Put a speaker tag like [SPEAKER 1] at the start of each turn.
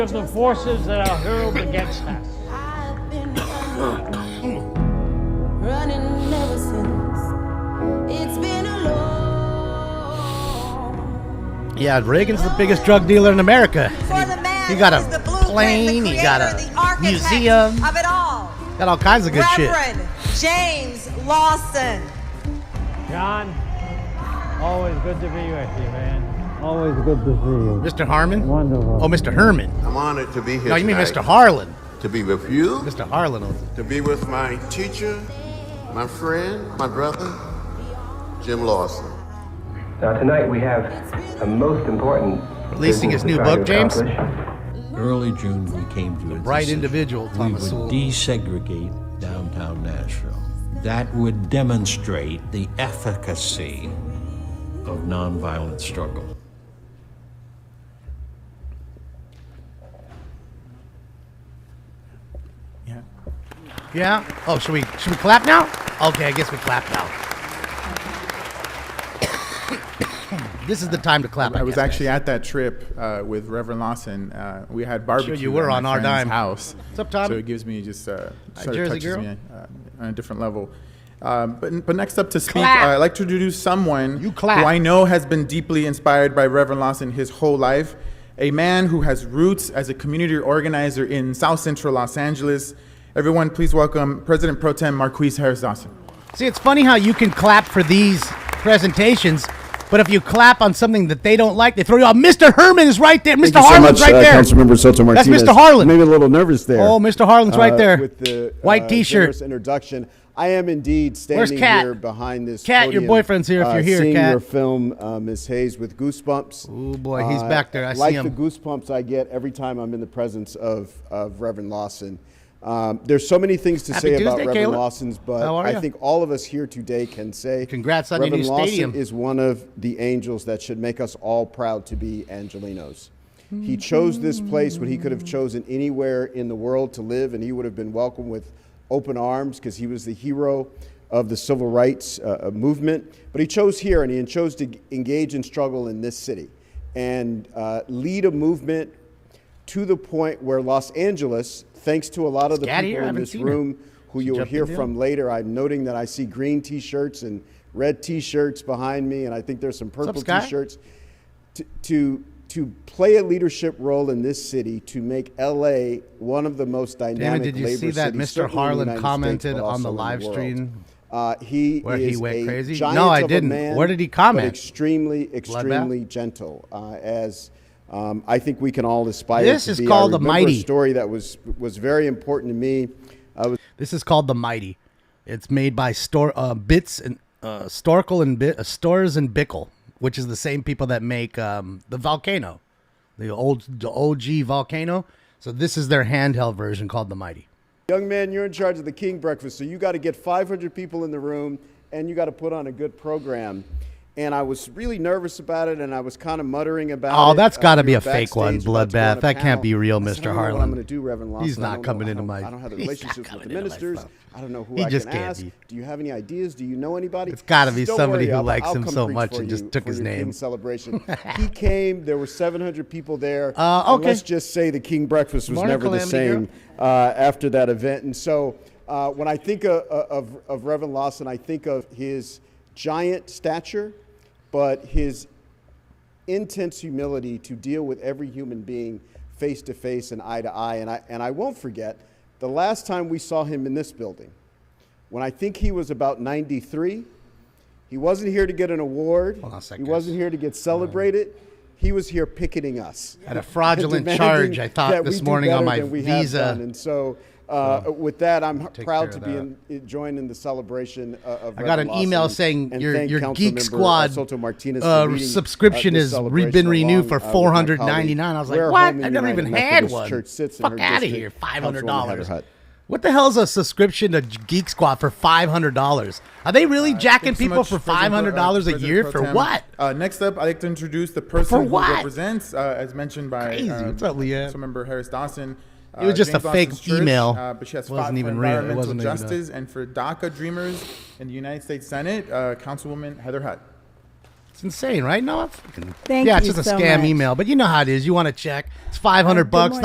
[SPEAKER 1] of the forces that are hurled against us.
[SPEAKER 2] I've been running, running ever since. It's been a long.
[SPEAKER 3] Yeah, Reagan's the biggest drug dealer in America.
[SPEAKER 4] For the man
[SPEAKER 3] He got
[SPEAKER 4] who
[SPEAKER 3] a
[SPEAKER 4] is the blueprint,
[SPEAKER 3] plane,
[SPEAKER 4] the
[SPEAKER 3] he got
[SPEAKER 4] creator,
[SPEAKER 3] a
[SPEAKER 4] the architect
[SPEAKER 3] museum.
[SPEAKER 4] of it all.
[SPEAKER 3] Got all kinds of good shit.
[SPEAKER 4] Reverend James Lawson.
[SPEAKER 1] John, always good to be with you, man. Always good to see you.
[SPEAKER 3] Mr. Harmon?
[SPEAKER 1] Wonderful.
[SPEAKER 3] Oh, Mr. Herman.
[SPEAKER 5] I'm honored to be here.
[SPEAKER 3] No, you mean
[SPEAKER 5] tonight,
[SPEAKER 3] Mr. Harlan.
[SPEAKER 5] To be with you,
[SPEAKER 3] Mr. Harlan. owns it.
[SPEAKER 5] to be with my teacher, my friend, my brother, Jim Lawson.
[SPEAKER 6] Now, tonight we have a most important.
[SPEAKER 3] Releasing
[SPEAKER 6] business
[SPEAKER 3] his new
[SPEAKER 6] to try to
[SPEAKER 3] book, James?
[SPEAKER 6] accomplish.
[SPEAKER 7] Early June, we came to a
[SPEAKER 3] bright
[SPEAKER 7] decision.
[SPEAKER 3] individual, Thomas
[SPEAKER 7] We
[SPEAKER 3] Sowell.
[SPEAKER 7] would desegregate downtown Nashville. That would demonstrate the efficacy of nonviolent struggle.
[SPEAKER 3] Yeah? Oh, should we should we clap now? Okay, I guess we clap now. this is the time to clap.
[SPEAKER 8] I was
[SPEAKER 3] guess.
[SPEAKER 8] actually at that trip uh, with Reverend Lawson. Uh, we had barbecue.
[SPEAKER 3] you were
[SPEAKER 8] at my
[SPEAKER 3] on our
[SPEAKER 8] friend's
[SPEAKER 3] dime.
[SPEAKER 8] House.
[SPEAKER 3] What's up, Tommy?
[SPEAKER 8] So it gives me just uh, sort of
[SPEAKER 3] Jersey
[SPEAKER 8] touches
[SPEAKER 3] girl?
[SPEAKER 8] me uh, on a different level. Um, but but next up to speak, uh,
[SPEAKER 3] Clap.
[SPEAKER 8] I'd like to introduce someone
[SPEAKER 3] You clap.
[SPEAKER 8] who I know has been deeply inspired by Reverend Lawson his whole life. A man who has roots as a community organizer in South Central Los Angeles. Everyone, please welcome President Pro Tem Marquise Harris Dawson.
[SPEAKER 3] See, it's funny how you can clap for these presentations, but if you clap on something that they don't like, they throw you out. Mr. Herman is right there. Mr.
[SPEAKER 9] Thank you so
[SPEAKER 3] Harlan's
[SPEAKER 9] much,
[SPEAKER 3] right
[SPEAKER 9] uh,
[SPEAKER 3] there.
[SPEAKER 9] Councilmember Soto
[SPEAKER 3] That's
[SPEAKER 9] Martinez.
[SPEAKER 3] Mr. Harlan.
[SPEAKER 9] Maybe a little nervous there.
[SPEAKER 3] Oh, Mr. Harlan's right
[SPEAKER 9] uh,
[SPEAKER 3] there.
[SPEAKER 9] With the
[SPEAKER 3] White
[SPEAKER 9] uh,
[SPEAKER 3] T-shirt.
[SPEAKER 9] generous introduction. I am indeed
[SPEAKER 3] Where's
[SPEAKER 9] standing
[SPEAKER 3] Kat?
[SPEAKER 9] here behind this.
[SPEAKER 3] Kat, your
[SPEAKER 9] podium,
[SPEAKER 3] boyfriend's here if
[SPEAKER 9] uh,
[SPEAKER 3] you're here,
[SPEAKER 9] Seeing
[SPEAKER 3] Kat.
[SPEAKER 9] your film, uh, Ms. Hayes, with goosebumps.
[SPEAKER 3] Ooh, boy, he's
[SPEAKER 9] Uh,
[SPEAKER 3] back there. I see
[SPEAKER 9] like
[SPEAKER 3] him.
[SPEAKER 9] the goosebumps I get every time I'm in the presence of, of Reverend Lawson. Um, there's so many things to
[SPEAKER 3] Happy
[SPEAKER 9] say about
[SPEAKER 3] Tuesday,
[SPEAKER 9] Reverend
[SPEAKER 3] Caleb.
[SPEAKER 9] Lawson's, but
[SPEAKER 3] How are
[SPEAKER 9] I
[SPEAKER 3] ya?
[SPEAKER 9] think all of us here today can say
[SPEAKER 3] Congrats on your
[SPEAKER 9] Reverend
[SPEAKER 3] new
[SPEAKER 9] Lawson
[SPEAKER 3] stadium.
[SPEAKER 9] is one of the angels that should make us all proud to be Angelinos. He chose this place when he could have chosen anywhere in the world to live, and he would have been welcomed with open arms because he was the hero of the civil rights uh, uh, movement. But he chose here, and he chose to engage in struggle in this city and uh, lead a movement to the point where Los Angeles, thanks to a lot of the
[SPEAKER 3] Kat
[SPEAKER 9] people
[SPEAKER 3] here? I
[SPEAKER 9] in
[SPEAKER 3] haven't
[SPEAKER 9] this
[SPEAKER 3] seen her.
[SPEAKER 9] room who
[SPEAKER 3] She
[SPEAKER 9] you'll
[SPEAKER 3] jumped
[SPEAKER 9] hear
[SPEAKER 3] in there?
[SPEAKER 9] from later. I'm noting that I see green T-shirts and red T-shirts behind me, and I think there's some
[SPEAKER 3] up,
[SPEAKER 9] purple
[SPEAKER 3] Sky?
[SPEAKER 9] T-shirts. To, to to play a leadership role in this city to make LA one of the most dynamic
[SPEAKER 3] did you
[SPEAKER 9] labor
[SPEAKER 3] see that
[SPEAKER 9] cities,
[SPEAKER 3] Mr.
[SPEAKER 9] certainly in the
[SPEAKER 3] Harlan
[SPEAKER 9] United States,
[SPEAKER 3] commented
[SPEAKER 9] but
[SPEAKER 3] on
[SPEAKER 9] also
[SPEAKER 3] the
[SPEAKER 9] in
[SPEAKER 3] live
[SPEAKER 9] world.
[SPEAKER 3] stream
[SPEAKER 9] Uh, he
[SPEAKER 3] where he
[SPEAKER 9] is
[SPEAKER 3] went
[SPEAKER 9] a
[SPEAKER 3] crazy? No,
[SPEAKER 9] giant
[SPEAKER 3] I
[SPEAKER 9] of a
[SPEAKER 3] didn't.
[SPEAKER 9] man,
[SPEAKER 3] Where did he
[SPEAKER 9] but
[SPEAKER 3] comment?
[SPEAKER 9] Extremely, extremely gentle. Uh, as um, I think we can all aspire.
[SPEAKER 3] This
[SPEAKER 9] to
[SPEAKER 3] is
[SPEAKER 9] be. I
[SPEAKER 3] called the
[SPEAKER 9] remember
[SPEAKER 3] mighty.
[SPEAKER 9] A story that was was very important to me. I was
[SPEAKER 3] This is called the Mighty. It's made by store uh, bits and uh, Storkel and Bi- uh, Stores and Bickle, which is the same people that make um, the Volcano, the old the OG Volcano. So this is their handheld version called the Mighty.
[SPEAKER 9] Young man, you're in charge of the King Breakfast, so you got to get 500 people in the room and you got to put on a good program. And I was really nervous about it, and I was kind of muttering about
[SPEAKER 3] Oh,
[SPEAKER 9] it.
[SPEAKER 3] that's
[SPEAKER 9] Uh,
[SPEAKER 3] gotta
[SPEAKER 9] we
[SPEAKER 3] be
[SPEAKER 9] were
[SPEAKER 3] a fake
[SPEAKER 9] backstage
[SPEAKER 3] one,
[SPEAKER 9] about to go on
[SPEAKER 3] bloodbath.
[SPEAKER 9] a
[SPEAKER 3] That can't
[SPEAKER 9] panel.
[SPEAKER 3] be real,
[SPEAKER 9] I
[SPEAKER 3] Mr.
[SPEAKER 9] said, I don't know
[SPEAKER 3] Harlan.
[SPEAKER 9] what I'm going to do, Reverend Lawson.
[SPEAKER 3] He's
[SPEAKER 9] I
[SPEAKER 3] not
[SPEAKER 9] don't know.
[SPEAKER 3] coming
[SPEAKER 9] I
[SPEAKER 3] into
[SPEAKER 9] don't-
[SPEAKER 3] my-
[SPEAKER 9] I don't have the
[SPEAKER 3] he's not
[SPEAKER 9] relationships
[SPEAKER 3] coming
[SPEAKER 9] with the
[SPEAKER 3] into my
[SPEAKER 9] ministers.
[SPEAKER 3] stuff.
[SPEAKER 9] I don't know who
[SPEAKER 3] He
[SPEAKER 9] I
[SPEAKER 3] just
[SPEAKER 9] can
[SPEAKER 3] can't
[SPEAKER 9] ask.
[SPEAKER 3] be.
[SPEAKER 9] Do you have any ideas? Do you know anybody?
[SPEAKER 3] It's gotta be
[SPEAKER 9] Don't
[SPEAKER 3] somebody
[SPEAKER 9] worry,
[SPEAKER 3] who
[SPEAKER 9] I'll-
[SPEAKER 3] likes
[SPEAKER 9] I'll
[SPEAKER 3] him
[SPEAKER 9] come
[SPEAKER 3] so
[SPEAKER 9] preach
[SPEAKER 3] much
[SPEAKER 9] for
[SPEAKER 3] and just
[SPEAKER 9] you
[SPEAKER 3] took
[SPEAKER 9] for
[SPEAKER 3] his
[SPEAKER 9] your
[SPEAKER 3] name.
[SPEAKER 9] King celebration. he came. There were 700 people there.
[SPEAKER 3] Uh,
[SPEAKER 9] and
[SPEAKER 3] okay.
[SPEAKER 9] Let's just say the King Breakfast was
[SPEAKER 3] Morning,
[SPEAKER 9] never the
[SPEAKER 3] Calamity Girl.
[SPEAKER 9] same uh, after that event. And so uh, when I think of, of, of Reverend Lawson, I think of his giant stature, but his intense humility to deal with every human being face to face and eye to eye. And I, and I won't forget the last time we saw him in this building, when I think he was about 93. He wasn't here to get an award.
[SPEAKER 3] Hold on a
[SPEAKER 9] he
[SPEAKER 3] second.
[SPEAKER 9] wasn't here to get celebrated. he was here picketing us
[SPEAKER 3] Had a fraudulent
[SPEAKER 9] demanding
[SPEAKER 3] charge, I thought,
[SPEAKER 9] that
[SPEAKER 3] this
[SPEAKER 9] we do
[SPEAKER 3] morning on
[SPEAKER 9] better
[SPEAKER 3] my
[SPEAKER 9] than we have
[SPEAKER 3] Visa.
[SPEAKER 9] done. And so, uh, with that, I'm
[SPEAKER 3] Take care
[SPEAKER 9] proud
[SPEAKER 3] of
[SPEAKER 9] to be
[SPEAKER 3] that.
[SPEAKER 9] in, in- joined in the celebration uh, of.
[SPEAKER 3] I got an
[SPEAKER 9] Reverend
[SPEAKER 3] email
[SPEAKER 9] Lawson
[SPEAKER 3] saying
[SPEAKER 9] and
[SPEAKER 3] your-
[SPEAKER 9] thank
[SPEAKER 3] your
[SPEAKER 9] Councilmember,
[SPEAKER 3] Geek
[SPEAKER 9] uh,
[SPEAKER 3] Squad,
[SPEAKER 9] Soto Martinez
[SPEAKER 3] uh,
[SPEAKER 9] for leading,
[SPEAKER 3] subscription
[SPEAKER 9] this
[SPEAKER 3] has re-
[SPEAKER 9] celebration
[SPEAKER 3] been renewed
[SPEAKER 9] along,
[SPEAKER 3] for
[SPEAKER 9] uh, with my colleague,
[SPEAKER 3] $499. I was like,
[SPEAKER 9] where
[SPEAKER 3] what?
[SPEAKER 9] Holman
[SPEAKER 3] I've never
[SPEAKER 9] United
[SPEAKER 3] even had
[SPEAKER 9] Methodist
[SPEAKER 3] one.
[SPEAKER 9] Church sits in
[SPEAKER 3] Fuck
[SPEAKER 9] her
[SPEAKER 3] outta
[SPEAKER 9] district.
[SPEAKER 3] here,
[SPEAKER 9] Councilwoman
[SPEAKER 3] $500.
[SPEAKER 9] Hutterhut.
[SPEAKER 3] What the hell's a subscription to Geek Squad for five hundred dollars? Are they
[SPEAKER 9] Uh,
[SPEAKER 3] really jacking
[SPEAKER 8] Thanks so
[SPEAKER 3] people
[SPEAKER 8] much,
[SPEAKER 3] for five
[SPEAKER 8] President Pro-
[SPEAKER 3] hundred dollars
[SPEAKER 8] uh,
[SPEAKER 3] a
[SPEAKER 8] President
[SPEAKER 3] year
[SPEAKER 8] Pro
[SPEAKER 3] for
[SPEAKER 8] Tem.
[SPEAKER 3] what?
[SPEAKER 8] Uh, next up, I'd like to introduce the person who
[SPEAKER 3] what?
[SPEAKER 8] represents, uh, as mentioned by
[SPEAKER 3] Crazy.
[SPEAKER 8] um,
[SPEAKER 3] What's up, Leanne?
[SPEAKER 8] Councilmember Harris Dawson.
[SPEAKER 3] It was
[SPEAKER 8] uh,
[SPEAKER 3] just a
[SPEAKER 8] James
[SPEAKER 3] fake
[SPEAKER 8] Lawson's church,
[SPEAKER 3] email.
[SPEAKER 8] Uh, but she has
[SPEAKER 3] It wasn't
[SPEAKER 8] fought
[SPEAKER 3] even
[SPEAKER 8] for
[SPEAKER 3] real. It
[SPEAKER 8] environmental
[SPEAKER 3] wasn't even a-
[SPEAKER 8] justice and for DACA dreamers in the United States Senate, uh, Councilwoman Heather Hutt.
[SPEAKER 3] It's insane, right? No, it's fucking,
[SPEAKER 4] Thank
[SPEAKER 3] yeah, it's
[SPEAKER 4] you
[SPEAKER 3] just a
[SPEAKER 4] so
[SPEAKER 3] scam
[SPEAKER 4] much.
[SPEAKER 3] email, but you know how it is. You want to check? It's five hundred bucks.